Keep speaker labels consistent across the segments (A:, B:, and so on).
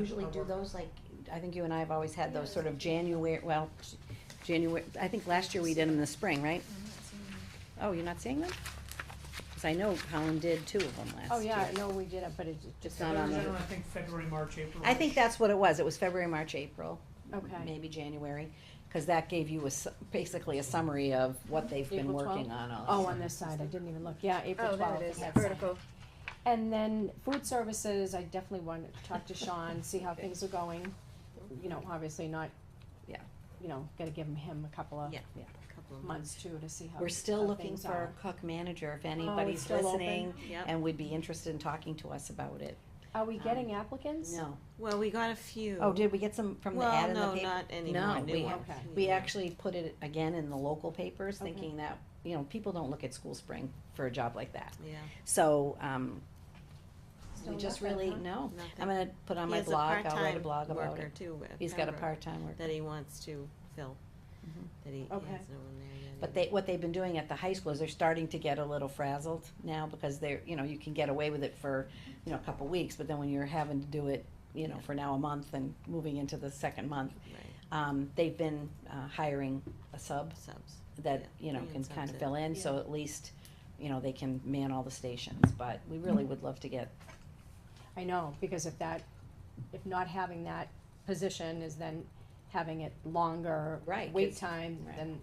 A: usually do
B: I'll
C: Uh-huh.
B: work.
A: those, like, I think you and I have always had those sort of January, well, January, I think last year we did them in the spring, right? Oh, you're not seeing them? Cause I know Colin did two of them last year.
C: Oh, yeah, I know we did it, but it's
A: It's
C: just.
A: not on
B: Those are,
A: the-
B: I think February, March, April.
A: I think that's what it was, it was February, March, April.
C: Okay.
A: Maybe January, cause that gave you a, su- basically a summary of what they've been
C: April
A: working
C: 12th?
A: on all.
C: Oh, on this side, I didn't even look, yeah, April
D: Oh, there
C: twelfth.
D: it is, vertical.
C: And then food services, I definitely want to talk to Sean, see how things are going, you know, obviously not.
A: Yeah.
C: You know, gotta give him- him a couple of
A: Yeah, yeah.
C: months too to see how.
A: We're still
C: how
A: looking
C: things
A: for
C: are.
A: a cook manager, if anybody's
C: still open?
A: listening,
D: Yep.
A: and would be interested in talking to us about it.
C: Are we getting applicants?
A: um, No.
D: Well, we got a few.
A: Oh, did we get some from the ad
D: Well,
A: in the
D: no,
A: paper?
D: not anymore.
A: No,
D: New
A: we-
D: ones.
C: okay.
A: We actually put it again in the local papers,
C: Okay.
A: thinking that, you know, people don't look at school spring for a job like that.
D: Yeah.
A: So, um,
C: Still
A: we just
C: nothing,
A: really,
C: huh?
A: no,
D: nothing.
A: I'm gonna put on
D: He
A: my
D: has a
A: blog, I'll write a
D: part-time
A: blog about
D: worker
A: it.
D: too at
A: He's got a
D: Pembroke
A: part-time work,
D: That he wants to fill, that he he
C: Okay.
D: has no one there yet.
A: but they, what they've been doing at the high school is they're starting to get a little frazzled now, because they're, you know, you can get away with it for, you know, a couple weeks, but then when you're having to do it, you know, for now a month and moving into the second month,
D: Right,
A: um, they've been, uh, hiring a sub
D: subs.
A: that,
D: Yeah,
A: you know,
D: bring in
A: can
D: subs
A: kind of
D: in.
A: fill in, so at least, you know, they can man all the stations, but we really would love to get,
C: I know, because if that, if not having that position is then having it longer.
A: Right,
C: Wait
A: 'cause-
C: time,
A: right. Mm-hmm.
C: then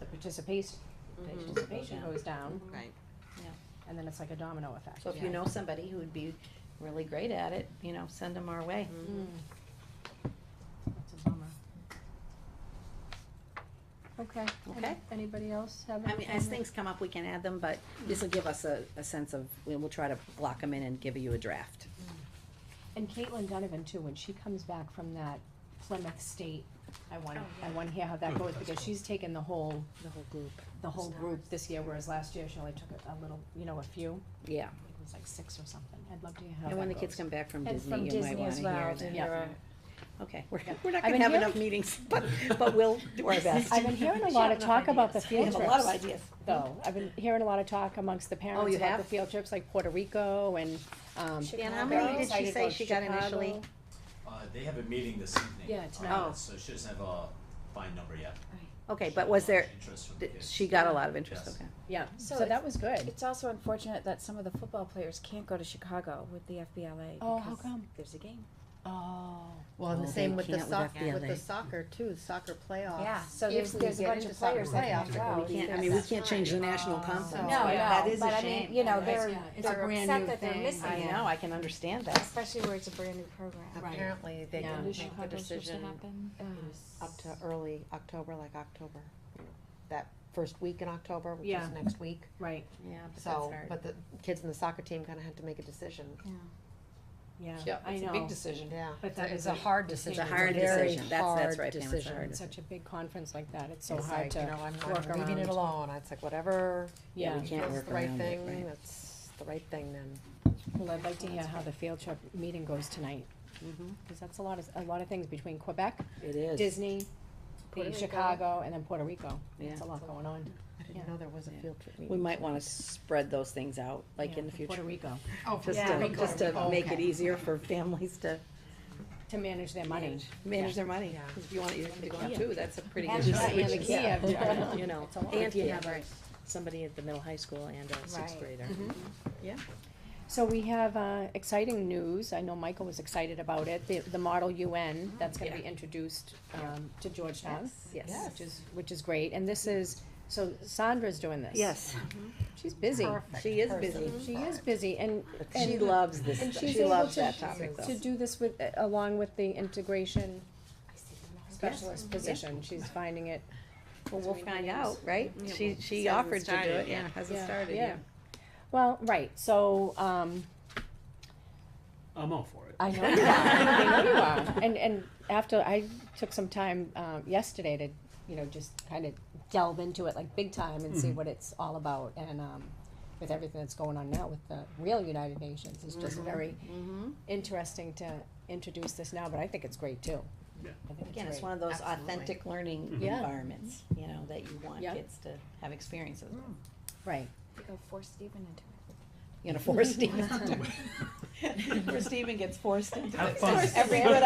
C: the participation,
D: Mhm.
C: participation
A: Yeah.
C: goes down,
D: Right,
A: Mm-hmm.
C: and then it's like a domino effect.
A: so if you know somebody who would be really great at it, you know, send them our way.
C: Mm. That's a bummer. Okay.
A: Okay.
C: Any- Anybody else have
A: I
C: any
A: mean, as
C: comments?
A: things come up, we can add them, but this'll give us a, a sense of, we will try to block them in and give you a draft.
C: And Caitlin Donovan too, when she comes back from that Plymouth State, I want,
A: Oh,
C: I want to hear how that goes, because she's taken the whole,
A: The whole group.
C: the whole group this year, whereas last year she only took a- a little, you know, a few.
A: Yeah,
C: It was like six or something. I'd love to hear how that
A: and when the
C: goes.
A: kids come back from
E: And from
A: Disney, you might
E: Disney
A: wanna
E: as
A: hear
E: well, to
A: that.
C: Yeah.
E: hear
A: Okay, we're, we're not gonna
C: I've been
A: have
C: hearing-
A: enough meetings, but, but we'll do our best.
C: I've been hearing a lot of talk about the
A: We
C: field
A: have a
C: trips.
A: lot of ideas. Oh,
C: Though, I've been hearing a lot of talk amongst the parents
A: you
C: about the
A: have?
C: field trips, like Puerto Rico and, um.
A: Dan, how
E: Chicago.
A: many did
C: Excited
A: she
C: to
A: say
C: go
A: she got
C: Chicago.
A: initially?
F: Uh, they have a meeting this evening.
C: Yeah,
F: on
C: tonight.
F: it, So she doesn't have a fine number yet.
A: Okay,
F: She
A: but
F: has
A: was
F: a
A: there,
F: lot of interest from
A: did-
F: kids.
A: she got a lot of interest,
F: Yes.
A: okay.
C: Yeah,
E: So
C: so that
E: it's-
C: was good.
E: It's also unfortunate that some of the football players can't go to Chicago with the FBLA
C: Oh, how
E: because
C: come?
E: there's a game.
C: Oh.
G: Well, and the
A: Well,
G: same
A: they
G: with the
A: can't with
G: soccer, with
A: FBLA.
G: the soccer too, soccer playoffs.
E: Yeah, so
G: Oh. If
E: there's-
G: we
E: there's a
G: get
E: bunch
G: into
E: of players
G: soccer
E: that can't
G: playoffs,
E: go.
G: we
A: We can't, I
G: have
A: mean, we
G: that.
A: can't change the national conference,
E: No,
A: but that
E: no,
A: is
E: but
A: a
E: I mean,
A: shame.
E: you know,
C: Right.
E: they're,
C: Yeah, it's a
E: they're
C: brand new
E: upset that they're
C: thing.
E: missing
A: I
E: it,
A: know, I can understand that.
D: Especially where it's a brand new program.
C: Right.
G: Apparently, they
C: Yeah.
G: can
C: Does
G: make the decision
E: Ugh.
G: up to early October, like October, you know, that first week in October, which
C: Yeah.
G: is next week.
C: Right,
A: Yeah, but that's
G: So,
A: hard.
G: but the kids in the soccer team kinda had to make a decision,
C: yeah,
A: Yeah,
C: I
A: it's
C: know.
A: a big decision.
G: yeah.
C: But that
G: It's
C: is
G: a
C: a-
G: hard
C: it's a
G: decision.
C: hard
G: very
A: decision. That's- that's
G: hard
A: right, Pam, it's a
G: decision.
A: hard
C: It's such a big conference like that, it's so
G: It's
C: hard
G: like, you know,
C: to,
G: I'm,
C: work
G: I'm leaving it
C: around.
G: alone, it's like whatever,
C: yeah.
A: we can't
G: feels
A: work
G: the right
A: around it, right.
G: thing, that's the right thing then.
C: Well, I'd like to hear how the field trip meeting goes tonight,
A: Mm-hmm.
C: because that's a lot of, a lot of things between Quebec,
A: It is.
C: Disney, the
G: Puerto Rico.
C: Chicago, and then Puerto Rico. It's a
A: Yeah.
C: lot going on.
G: I
C: Yeah.
G: didn't know there was a
A: Yeah.
G: field trip meeting.
A: We might wanna spread those things out, like
C: Yeah,
A: in the
C: for
A: future.
C: Puerto Rico,
B: Oh,
A: Just
E: Yeah.
A: to,
E: Rico.
A: just to make it
C: Okay.
A: easier for families to
C: to manage their money.
A: manage their money.
G: Yeah.
A: 'Cause If you want your kid to go out
C: Yeah.
A: too, that's a pretty
C: And
A: good.
C: the- and the uh,
A: switch.
C: Kiev,
A: Yeah.
C: yeah.
A: You know,
C: It's a lot.
A: and
H: If you
A: Kiev.
H: have a, somebody at the middle high school and a sixth
E: Right.
H: grader.
C: So we have, uh, exciting news, I know Michael was excited about it, the, the Model UN, that's gonna be introduced, um, to Georgetown.
A: Yes.
C: Which is, which is great, and this is, so Sandra's doing this.
A: Yes,
C: She's busy,
A: she is busy.
C: she is busy, and,
A: She
C: and
A: loves
C: and
A: this,
C: she's
A: she loves
C: able
A: that
C: to-
A: topic
C: to
A: though.
C: do this with, uh, along with the integration specialist position, she's finding it
A: Mm-hmm. Well, we'll find out, right?
D: Yeah,
A: She,
D: well,
A: she
D: hasn't
A: offered to do
D: started
A: it,
D: yet.
A: yeah, hasn't started yet.
C: Well, right, so, um,
I: I'm all for it.
C: I know you are, I know you are, and, and after, I took some time, um, yesterday to, you know, just kind of delve into it, like, big time and see what it's all about, and, um, with everything that's going on now with the real United Nations, it's just
A: Mm-hmm.
C: very interesting to introduce this now, but I think it's great too.
I: Yeah.
C: I think
A: Again, it's
C: great.
A: one of those
G: Absolutely.
A: authentic learning
F: Mm-hmm.
C: Yeah.
A: environments, you know, that you want
C: Yeah.
A: Mm.
F: Mm.
A: kids to have experiences with.
C: Right,
E: You go force Steven into it.
A: gonna force Steve into it. Where Steven gets forced into it.
F: Have fun.
A: Every good